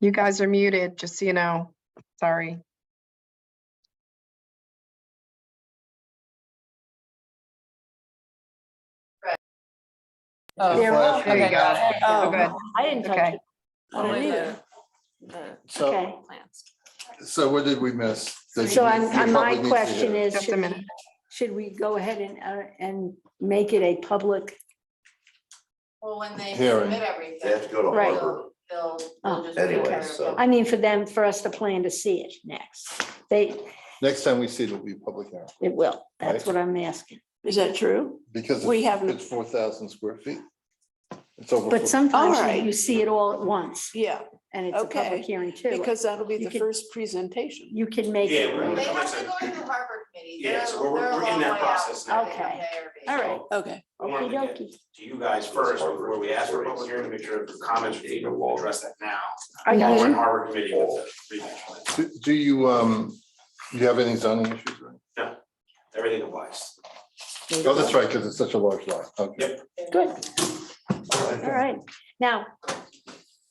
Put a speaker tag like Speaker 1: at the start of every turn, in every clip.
Speaker 1: You guys are muted, just so you know. Sorry.
Speaker 2: Oh,
Speaker 1: There
Speaker 2: flash
Speaker 1: there you
Speaker 2: reader.
Speaker 1: go.
Speaker 3: Oh,
Speaker 1: We're good.
Speaker 3: I didn't touch
Speaker 1: Okay.
Speaker 3: it.
Speaker 4: Only
Speaker 3: Yeah.
Speaker 4: the, the
Speaker 3: Okay,
Speaker 2: So,
Speaker 4: plants.
Speaker 2: so what did we miss? that
Speaker 3: so
Speaker 2: you-
Speaker 3: I'm,
Speaker 2: you
Speaker 3: I'm- my
Speaker 2: probably need to
Speaker 3: question
Speaker 2: hear?
Speaker 3: is,
Speaker 1: Just a
Speaker 3: should,
Speaker 1: minute.
Speaker 3: should we go ahead and, uh, and make it a public?
Speaker 4: Well, when they
Speaker 2: Hearing.
Speaker 4: submit
Speaker 5: They have to
Speaker 4: everything,
Speaker 5: go to
Speaker 3: Right.
Speaker 5: Harvard.
Speaker 4: they'll,
Speaker 3: Oh.
Speaker 4: they'll just.
Speaker 5: Anyway,
Speaker 4: prepare a
Speaker 5: so-
Speaker 4: book.
Speaker 3: I mean, for them, for us to plan to see it next. They,
Speaker 2: Next time we see it, it'll be public hearing,
Speaker 3: it will. That's what I'm asking.
Speaker 6: Is that true?
Speaker 2: because
Speaker 6: We
Speaker 2: it's-
Speaker 6: haven't-
Speaker 2: it's four thousand square feet. It's over.
Speaker 3: But
Speaker 2: four-
Speaker 3: sometimes
Speaker 6: All right.
Speaker 3: you- you see it all at once
Speaker 6: Yeah,
Speaker 3: and it's a
Speaker 6: Okay,
Speaker 3: public hearing too.
Speaker 6: because that'll be
Speaker 3: You
Speaker 6: the
Speaker 3: could-
Speaker 6: first presentation.
Speaker 3: You can make it.
Speaker 7: Yeah, we're-
Speaker 4: They
Speaker 3: right?
Speaker 4: have to go to the Harvard committee.
Speaker 7: Yeah,
Speaker 4: They're-
Speaker 7: so we're-
Speaker 4: they're a
Speaker 7: we're in
Speaker 4: long
Speaker 7: that
Speaker 4: way out
Speaker 7: process
Speaker 4: from
Speaker 3: now.
Speaker 4: the
Speaker 3: Okay.
Speaker 4: ARB.
Speaker 3: All right.
Speaker 6: Okay,
Speaker 7: I wanted to get
Speaker 3: Okey-dokey.
Speaker 7: to you guys first before we ask for public hearing to make sure the comments from people will address that now.
Speaker 3: Are
Speaker 7: While We're in
Speaker 3: you,
Speaker 7: Harvard committee with the revision plan.
Speaker 2: Do- Do you, um, you have any zoning issues? or-
Speaker 7: Everything applies.
Speaker 2: Oh, that's right, because it's such a large lot. Okay.
Speaker 3: good. All right, now,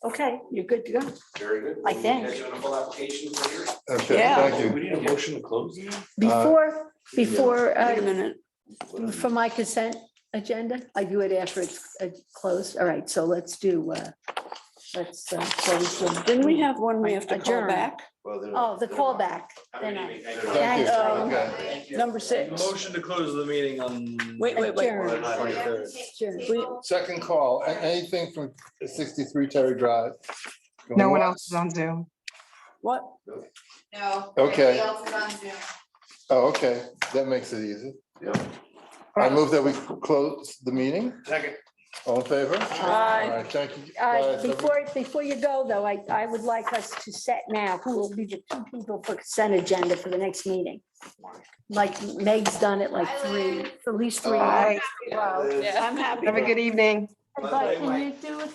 Speaker 3: okay, you're good to go.
Speaker 7: Very good.
Speaker 3: I think.
Speaker 7: Guys doing a full application for your.
Speaker 2: Okay,
Speaker 6: Yeah.
Speaker 2: thank you.
Speaker 7: need a motion to close now?
Speaker 3: Before, before,
Speaker 6: wait a
Speaker 3: uh,
Speaker 6: minute.
Speaker 3: for my consent agenda, I do it after it's uh, closed. All right, so let's do, uh, let's uh, close. the-
Speaker 6: Didn't we have one we have to call
Speaker 3: Adjourn.
Speaker 6: back?
Speaker 5: Well, they're-
Speaker 3: Oh, the
Speaker 5: they're-
Speaker 3: callback.
Speaker 7: Have a
Speaker 3: Then
Speaker 7: good
Speaker 3: I-
Speaker 7: evening. Thank you.
Speaker 2: Thank you.
Speaker 3: That, um,
Speaker 2: Okay.
Speaker 6: Number six.
Speaker 8: Motion to close the meeting on.
Speaker 6: Wait, wait, wait.
Speaker 3: Adjourn.
Speaker 7: Well,
Speaker 4: So
Speaker 7: not
Speaker 4: they have to
Speaker 7: here.
Speaker 4: take
Speaker 3: Sure.
Speaker 4: the
Speaker 3: We-
Speaker 4: table.
Speaker 2: Second call, A- anything from sixty-three Terry Drive?
Speaker 1: No one else is on Zoom.
Speaker 6: What?
Speaker 4: No. everybody
Speaker 2: Okay.
Speaker 4: else is on Zoom.
Speaker 2: Oh, okay, that makes it easy.
Speaker 5: Yeah.
Speaker 2: I move that we close the meeting.
Speaker 7: Second.
Speaker 2: All in favor?
Speaker 6: Aye.
Speaker 2: All right, thank you.
Speaker 3: Uh,
Speaker 2: guys.
Speaker 3: Before, before you go, though, I, I would like us to set now who will be the two people for consent agenda for the next meeting. Like Meg's done it like three, at least three.
Speaker 1: Bye.
Speaker 4: Wow.
Speaker 5: Yeah.
Speaker 6: I'm happy.
Speaker 1: Have a good evening.
Speaker 3: But can you do it